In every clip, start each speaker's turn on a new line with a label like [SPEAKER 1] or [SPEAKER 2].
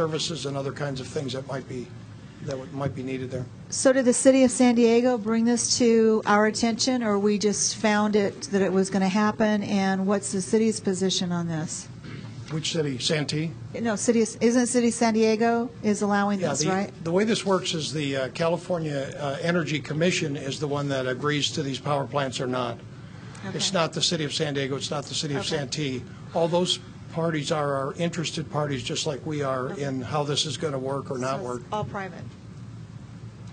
[SPEAKER 1] services and other kinds of things that might be, that would- might be needed there.
[SPEAKER 2] So did the city of San Diego bring this to our attention, or we just found it, that it was going to happen, and what's the city's position on this?
[SPEAKER 1] Which city? Santee?
[SPEAKER 2] No, city, is- isn't city San Diego is allowing
[SPEAKER 1] Yeah,
[SPEAKER 2] this,
[SPEAKER 1] the-
[SPEAKER 2] right?
[SPEAKER 1] The way this works is the uh, California uh, Energy Commission is the one that agrees to these power plants or not. It's
[SPEAKER 2] Okay.
[SPEAKER 1] not the city of San Diego, it's not the city of
[SPEAKER 2] Okay.
[SPEAKER 1] Santee. All those parties are our interested parties, just like we are in how this is going to work or
[SPEAKER 2] So
[SPEAKER 1] not
[SPEAKER 2] it's
[SPEAKER 1] work.
[SPEAKER 2] All private.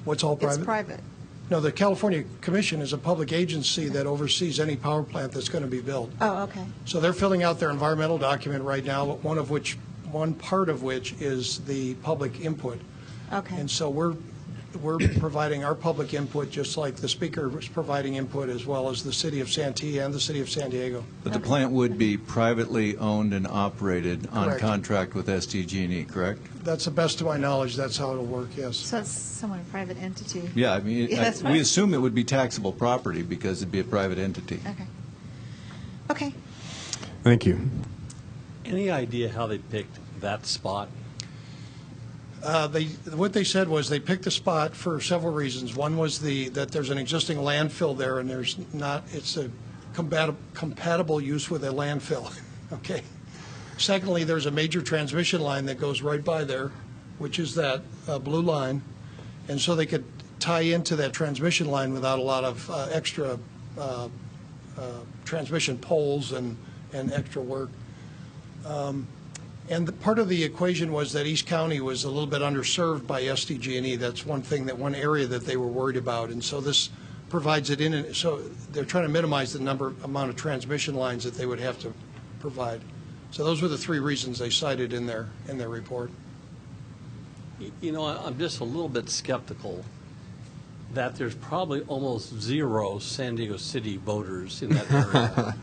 [SPEAKER 1] What's all
[SPEAKER 2] It's
[SPEAKER 1] private?
[SPEAKER 2] private.
[SPEAKER 1] No, the California Commission is a public agency that oversees any power plant that's going to be built.
[SPEAKER 2] Oh, okay.
[SPEAKER 1] So they're filling out their environmental document right now, one of which, one part of which is the public input.
[SPEAKER 2] Okay.
[SPEAKER 1] And so we're, we're providing our public input, just like the speaker was providing input, as well as the city of Santee and the city of San Diego.
[SPEAKER 3] But the plant would be privately owned and operated on
[SPEAKER 1] Correct.
[SPEAKER 3] contract with SDG&E, E, correct?
[SPEAKER 1] That's the best of my knowledge, that's how it'll work, yes.
[SPEAKER 2] So it's someone, private entity.
[SPEAKER 3] Yeah, I mean,
[SPEAKER 2] Yeah,
[SPEAKER 3] I-
[SPEAKER 2] that's
[SPEAKER 3] we
[SPEAKER 2] right.
[SPEAKER 3] assume it would be taxable property because it'd be a private entity.
[SPEAKER 2] Okay. Okay.
[SPEAKER 4] Thank you.
[SPEAKER 5] Any idea how they picked that spot?
[SPEAKER 1] Uh, They, what they said was they picked the spot for several reasons. One was the, that there's an existing landfill there, and there's not, it's a compatible, compatible use with a landfill, okay? Secondly, there's a major transmission line that goes right by there, which is that uh, blue line, and so they could tie into that transmission line without a lot of uh, extra uh, uh, transmission poles and, and extra work. And the, part of the equation was that East County was a little bit underserved by SDG&E. E. That's one thing, that one area that they were worried about. And so this provides it in, and so they're trying to minimize the number, amount of transmission lines that they would have to provide. So those were the three reasons they cited in their, in their report.
[SPEAKER 5] Y- You know, I- I'm just a little bit skeptical that there's probably almost zero San Diego City voters in that area.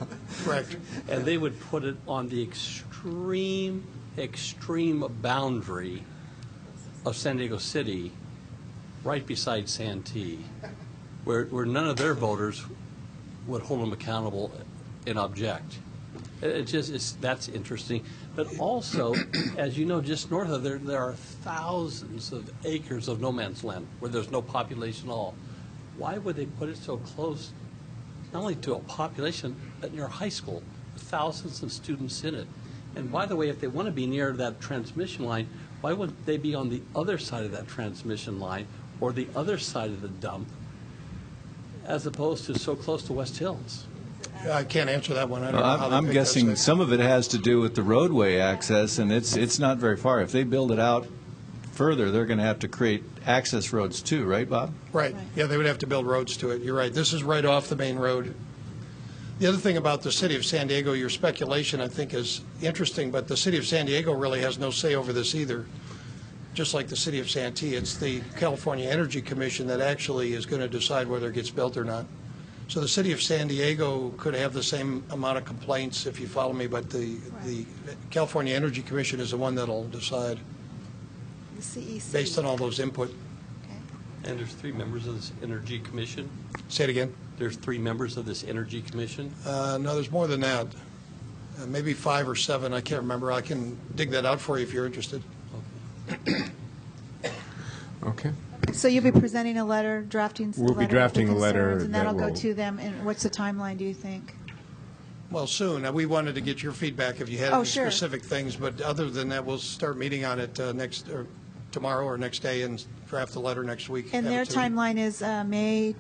[SPEAKER 1] Correct.
[SPEAKER 5] And they would put it on the extreme, extreme boundary of San Diego City, right beside Santee, where, where none of their voters would hold them accountable and object. It it just, it's, that's interesting. But also, as you know, just north of there, there are thousands of acres of no man's land where there's no population at all. Why would they put it so close, not only to a population, but near a high school, with thousands of students in it? And by the way, if they want to be near that transmission line, why wouldn't they be on the other side of that transmission line or the other side of the dump as opposed to so close to West Hills?
[SPEAKER 1] I can't answer that one. I don't know how
[SPEAKER 3] I'm
[SPEAKER 1] they
[SPEAKER 3] I'm
[SPEAKER 1] picked that
[SPEAKER 3] guessing
[SPEAKER 1] site.
[SPEAKER 3] some of it has to do with the roadway access, and it's, it's not very far. If they build it out further, they're going to have to create access roads too, right, Bob?
[SPEAKER 1] Right, yeah, they would have to build roads to it, you're right, this is right off the main road. The other thing about the city of San Diego, your speculation, I think, is interesting, but the city of San Diego really has no say over this either, just like the city of Santee, it's the California Energy Commission that actually is going to decide whether it gets built or not. So the city of San Diego could have the same amount of complaints, if you follow me, but the, the California Energy Commission is the one that'll decide,
[SPEAKER 2] The E CEC.
[SPEAKER 1] based on all those input.
[SPEAKER 5] And there's three members of this Energy Commission?
[SPEAKER 1] Say it again?
[SPEAKER 5] There's three members of this Energy Commission?
[SPEAKER 1] Uh, No, there's more than that. Uh, Maybe five or seven, I can't remember. I can dig that out for you if you're interested.
[SPEAKER 4] Okay.
[SPEAKER 2] So you'll be presenting a letter, drafting a letter.
[SPEAKER 4] We'll be
[SPEAKER 2] with
[SPEAKER 4] drafting a
[SPEAKER 2] concerns,
[SPEAKER 4] letter
[SPEAKER 2] And
[SPEAKER 4] that
[SPEAKER 2] that'll go
[SPEAKER 4] will-
[SPEAKER 2] to them, and what's the timeline, do you think?
[SPEAKER 1] Well, soon. Uh, We wanted to get your feedback if you had
[SPEAKER 2] Oh,
[SPEAKER 1] any
[SPEAKER 2] sure.
[SPEAKER 1] specific things, but other than that, we'll start meeting on it uh, next, or tomorrow or next day and draft the letter next week. Have
[SPEAKER 2] And
[SPEAKER 1] it
[SPEAKER 2] their
[SPEAKER 1] to you.
[SPEAKER 2] timeline is uh, May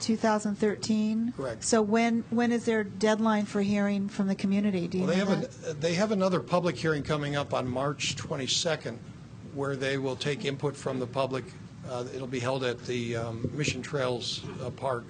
[SPEAKER 2] 2013?
[SPEAKER 1] Correct.
[SPEAKER 2] So when, when is their deadline for hearing from the community? Do you
[SPEAKER 1] Well, they
[SPEAKER 2] know
[SPEAKER 1] have,
[SPEAKER 2] that?
[SPEAKER 1] an- they have another public hearing coming up on March 22nd, where they will take input from the public. Uh, It'll be held at the um, Mission Trails uh, Park,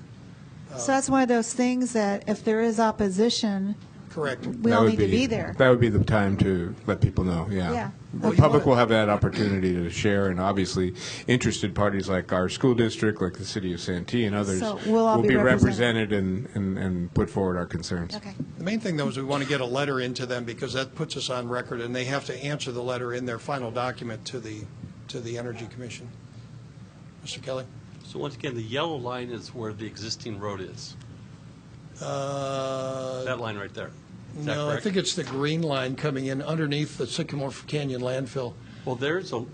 [SPEAKER 1] uh,
[SPEAKER 2] So that's one of those things that if there is opposition,
[SPEAKER 1] correct?
[SPEAKER 2] we
[SPEAKER 4] That
[SPEAKER 2] all
[SPEAKER 4] would
[SPEAKER 2] need to be there.
[SPEAKER 4] That would be the time to let people know, yeah.
[SPEAKER 2] Yeah.
[SPEAKER 4] The
[SPEAKER 2] Okay.
[SPEAKER 4] public will have that opportunity to share, and obviously, interested parties like our school district, like the city of Santee and others
[SPEAKER 2] So we'll all
[SPEAKER 4] will
[SPEAKER 2] be
[SPEAKER 4] be
[SPEAKER 2] represented.
[SPEAKER 4] represented and, and, and put forward our concerns.
[SPEAKER 2] Okay,
[SPEAKER 1] The main thing, though, is we want to get a letter into them because that puts us on record, and they have to answer the letter in their final document to the, to the Energy Commission. Mr. Kelly?
[SPEAKER 5] So once again, the yellow line is where the existing road is,
[SPEAKER 1] Uh,
[SPEAKER 5] that line right there. Is that
[SPEAKER 1] No, I
[SPEAKER 5] correct?
[SPEAKER 1] think it's the green line coming in underneath the Sycamore Canyon landfill.
[SPEAKER 5] Well, there's a,